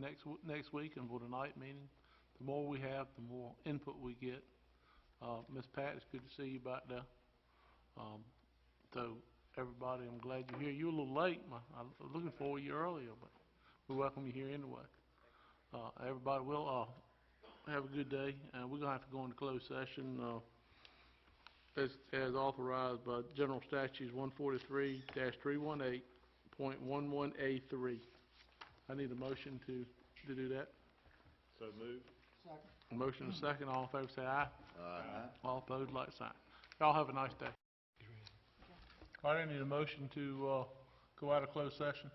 next, w- next week and for tonight meeting, the more we have, the more input we get. Uh, Ms. Pat, it's good to see you back there. Um, so, everybody, I'm glad you're here. You're a little late, my, I was looking for you earlier, but we welcome you here anyway. Uh, everybody, we'll, uh, have a good day, and we're gonna have to go into closed session, uh, as, as authorized by General Statutes one forty-three three one eight point one one A three. I need a motion to, to do that. So move. Motion and a second, all in favor say aye. Aye. All opposed, like sign. Y'all have a nice day. All right, I need a motion to, uh, go out of closed session.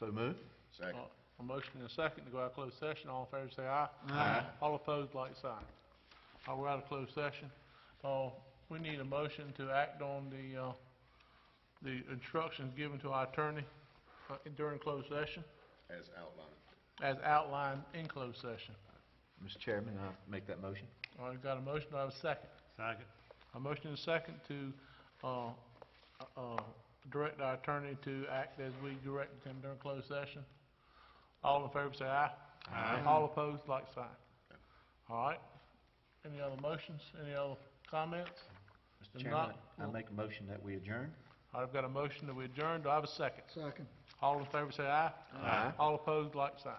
So move. Second. Uh, A motion and a second to go out of closed session, all in favor say aye. Aye. All opposed, like sign. Uh, we're out of closed session. Uh, we need a motion to act on the, uh, the instructions given to our attorney uh, during closed session, As outlined. as outlined in closed session. Mr. Chairman, I make that motion? All right, got a motion, do I have a second? Second. A motion and a second to, uh, uh, direct our attorney to act as we directed him during closed session. All in favor, say aye. Aye. All opposed, like sign. All right. Any other motions, any other comments? Mr. If Chairman, not, I we'll- make a motion that we adjourn? All right, I've got a motion that we adjourn, do I have a second? Second. All in favor, say aye. Aye. All opposed, like sign.